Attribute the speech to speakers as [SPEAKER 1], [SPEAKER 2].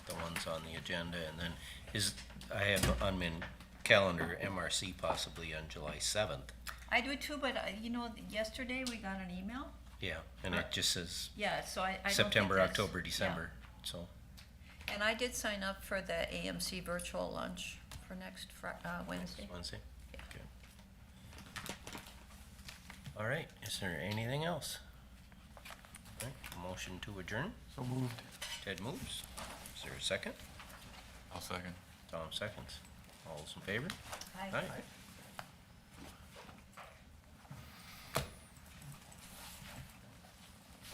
[SPEAKER 1] items on the agenda, and then is, I have on my calendar MRC possibly on July seventh.
[SPEAKER 2] I do too, but uh, you know, yesterday we got an email.
[SPEAKER 1] Yeah, and it just says
[SPEAKER 2] Yeah, so I, I don't think
[SPEAKER 1] September,
[SPEAKER 2] that's-
[SPEAKER 1] October,
[SPEAKER 2] yeah.
[SPEAKER 1] December, so.
[SPEAKER 2] And I did sign up for the AMC virtual lunch for next Fri- uh, Wednesday.
[SPEAKER 1] Wednesday?
[SPEAKER 2] Yeah.
[SPEAKER 1] Okay. All right, is there anything else? All right, Motion to adjourn,
[SPEAKER 3] So moved.
[SPEAKER 1] Ted moves. Is there a second?
[SPEAKER 4] I'll second.
[SPEAKER 1] Tom seconds. All those in favor?
[SPEAKER 2] Hi.
[SPEAKER 1] Aye.